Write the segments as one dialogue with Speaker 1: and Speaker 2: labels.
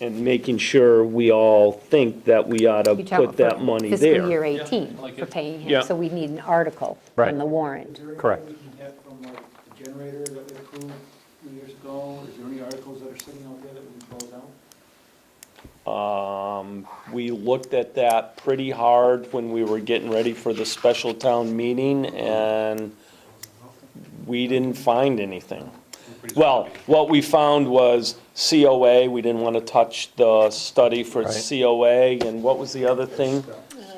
Speaker 1: and making sure we all think that we ought to
Speaker 2: You're talking
Speaker 1: put that
Speaker 2: for
Speaker 1: money there.
Speaker 2: Fiscal year 18
Speaker 3: like
Speaker 2: for
Speaker 3: it-
Speaker 2: paying
Speaker 1: Yeah.
Speaker 2: him, so we need an article
Speaker 4: Right.
Speaker 2: from the warrant.
Speaker 4: Correct.
Speaker 5: Is there anything we can get from like the generator that we approved a few years ago? Is there any articles that are sitting out there that we can close out?
Speaker 1: Um, We looked at that pretty hard when we were getting ready for the special town meeting, and we didn't find anything. Well, what we found was COA, we didn't want to touch the study for
Speaker 4: Right.
Speaker 1: COA, and what was the other thing?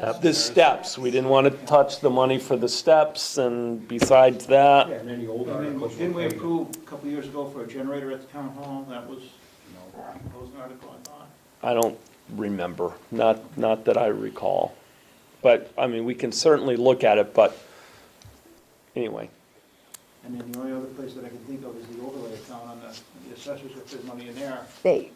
Speaker 6: uh,
Speaker 1: The steps, we didn't want to touch the money for the steps, and besides that,
Speaker 6: And any old
Speaker 5: I mean,
Speaker 6: articles.
Speaker 5: Didn't we approve a couple years ago for a generator at the town hall? That was, you know, that was an article, I thought.
Speaker 1: I don't remember, not, not that I recall. But, I mean, we can certainly look at it, but, anyway,
Speaker 5: And then the only other place that I can think of is the overlay account on the the assessors, if there's money in there.
Speaker 2: They,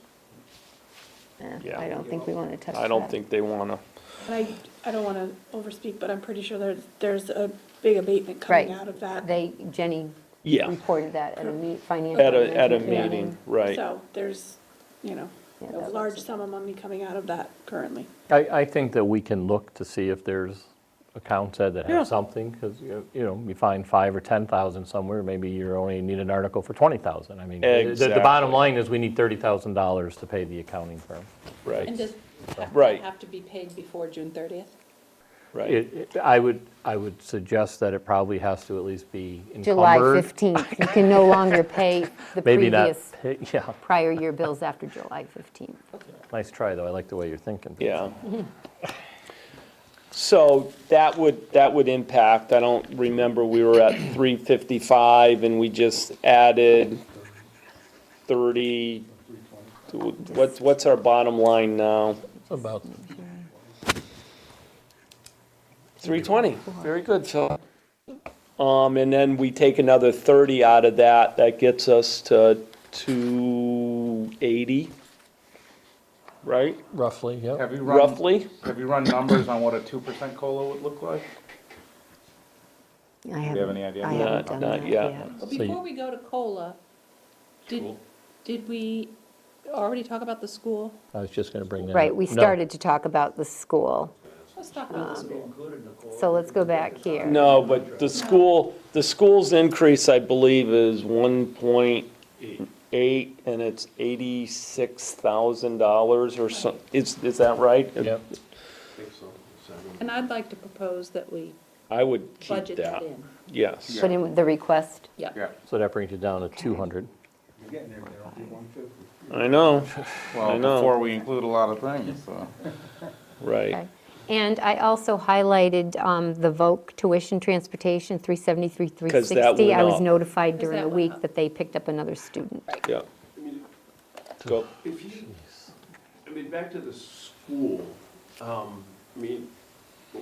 Speaker 2: eh,
Speaker 1: Yeah.
Speaker 2: I don't think we want to touch that.
Speaker 1: I don't think they wanna,
Speaker 7: And I, I don't want to overspeak, but I'm pretty sure there's, there's a big abatement
Speaker 2: Right.
Speaker 7: coming out of that.
Speaker 2: They, Jenny
Speaker 1: yeah,
Speaker 2: reported that at a meet, financial.
Speaker 1: at a, at a
Speaker 2: management
Speaker 1: meeting, right.
Speaker 7: So there's, you know,
Speaker 2: Yeah,
Speaker 7: a
Speaker 2: that
Speaker 7: large
Speaker 2: was-
Speaker 7: sum of money coming out of that currently.
Speaker 4: I, I think that we can look to see if there's accounts that that
Speaker 1: Yeah.
Speaker 4: have something, because, you you know, you find five or 10,000 somewhere, maybe you only need an article for 20,000. I mean, the- the- the
Speaker 1: Exactly.
Speaker 4: bottom line is we need $30,000 to pay the accounting firm.
Speaker 8: And
Speaker 1: Right,
Speaker 8: does that
Speaker 1: Right.
Speaker 8: have to be paid before June 30th?
Speaker 1: right.
Speaker 4: It- it- I would, I would suggest that it probably has to at least be encumbered.
Speaker 2: July 15th. You can no longer pay the
Speaker 4: Maybe not,
Speaker 2: previous
Speaker 4: pay- yeah,
Speaker 2: prior year bills after July 15th.
Speaker 4: nice try, though, I like the way you're thinking.
Speaker 1: Yeah. So that would, that would impact, I don't remember, we were at three fifty-five and we just added thirty, what's, what's our bottom line now?
Speaker 4: About
Speaker 1: Three twenty, very good, Phil. Um, and then we take another thirty out of that, that gets us to two eighty, right,
Speaker 4: roughly, yeah.
Speaker 9: Have you run,
Speaker 1: roughly?
Speaker 9: have you run numbers on what a two percent COLA would look like?
Speaker 2: I haven't.
Speaker 9: have any idea?
Speaker 2: I
Speaker 9: Not-
Speaker 2: haven't done
Speaker 1: not
Speaker 2: that
Speaker 1: yet.
Speaker 2: yet.
Speaker 8: But
Speaker 4: So you-
Speaker 8: before we go to COLA, did, did we already talk about the school?
Speaker 4: I was just going to bring that up.
Speaker 2: Right, we
Speaker 4: No.
Speaker 2: started to talk about the school,
Speaker 8: Let's talk about the school.
Speaker 2: so let's go back here.
Speaker 1: No, but the school, the school's increase, I believe, is one point eight, and it's eighty-six thousand dollars or so, is, is that right?
Speaker 4: Yep.
Speaker 8: Um, And I'd like to propose that we
Speaker 1: I would keep
Speaker 8: budget that
Speaker 1: that,
Speaker 8: in.
Speaker 1: yes.
Speaker 2: Put in the request.
Speaker 8: Yeah.
Speaker 9: Yeah,
Speaker 4: So that brings it down to 200.
Speaker 5: You're getting there, Darrell, it'll be 150.
Speaker 1: I know, I
Speaker 9: well,
Speaker 1: know.
Speaker 9: before we include a lot of things, so.
Speaker 1: right,
Speaker 2: Okay. And I also highlighted um, the VOC tuition transportation, 373, 360.
Speaker 1: went
Speaker 2: I was
Speaker 1: up.
Speaker 2: notified
Speaker 8: Because
Speaker 2: during
Speaker 8: that
Speaker 2: the
Speaker 8: went
Speaker 2: week
Speaker 8: up.
Speaker 2: that they picked up another student.
Speaker 1: yeah. Go,
Speaker 10: If you, I mean, back to the school, um, I mean,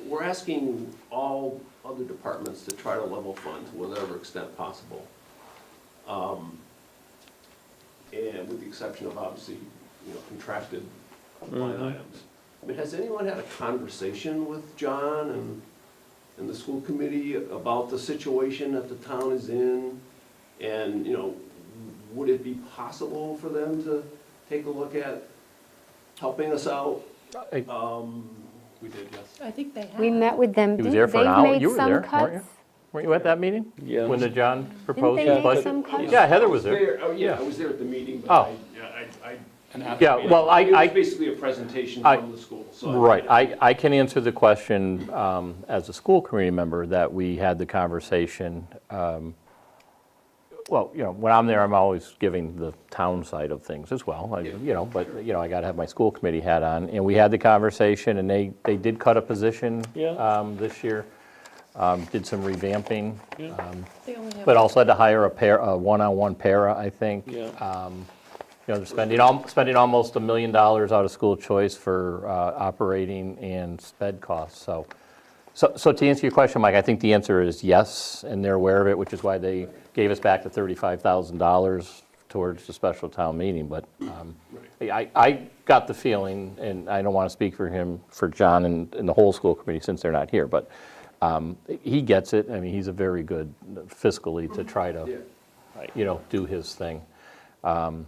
Speaker 10: we're asking all other departments to try to level fund to whatever extent possible. Um, And with the exception of obviously, you know, contracted line items. I mean, has anyone had a conversation with John and, and the school committee about the situation that the town is in? And, you know, would it be possible for them to take a look at helping us out?
Speaker 4: I-
Speaker 10: Um, we did, yes.
Speaker 8: I think they have.
Speaker 2: We met with them.
Speaker 4: He was
Speaker 2: Didn't-
Speaker 4: there for an
Speaker 2: they
Speaker 4: hour.
Speaker 2: made
Speaker 4: You were
Speaker 2: some
Speaker 4: there,
Speaker 2: cuts?
Speaker 4: weren't you? Weren't you at that meeting?
Speaker 1: Yeah.
Speaker 4: When the John proposed
Speaker 2: they
Speaker 4: his
Speaker 2: make
Speaker 4: budget?
Speaker 2: some cuts?
Speaker 4: Yeah, Heather was there.
Speaker 10: There, oh, yeah, I was there at the meeting, but
Speaker 4: Oh.
Speaker 10: I, yeah, I, I.
Speaker 4: Yeah, well, I-
Speaker 10: It
Speaker 4: I-
Speaker 10: was basically a presentation
Speaker 4: I-
Speaker 10: from the school, so. I-
Speaker 4: Right, I, I can answer the question um, as a school committee member that we had the conversation. um, Well, you know, when I'm there, I'm always giving the town side of things as well, I- you know, but, you know, I got to have my school committee hat on. And we had the conversation and they, they did cut a position
Speaker 1: Yeah.
Speaker 4: um, this year, um, did some revamping. um,
Speaker 8: They only have
Speaker 4: But also had to hire a pair, a one-on-one para, I think.
Speaker 1: Yeah.
Speaker 4: Um, You know, they're spending, al- spending almost a million dollars out of school choice for uh, operating and sped costs, so. So, so to answer your question, Mike, I think the answer is yes, and they're aware of it, which is why they gave us back the thirty-five thousand dollars towards the special town meeting, but um, I, I got the feeling, and I don't want to speak for him, for John and, and the whole school committee since they're not here, but um, he gets it, I mean, he's a very good fiscally to try to, you know, do his thing. Um,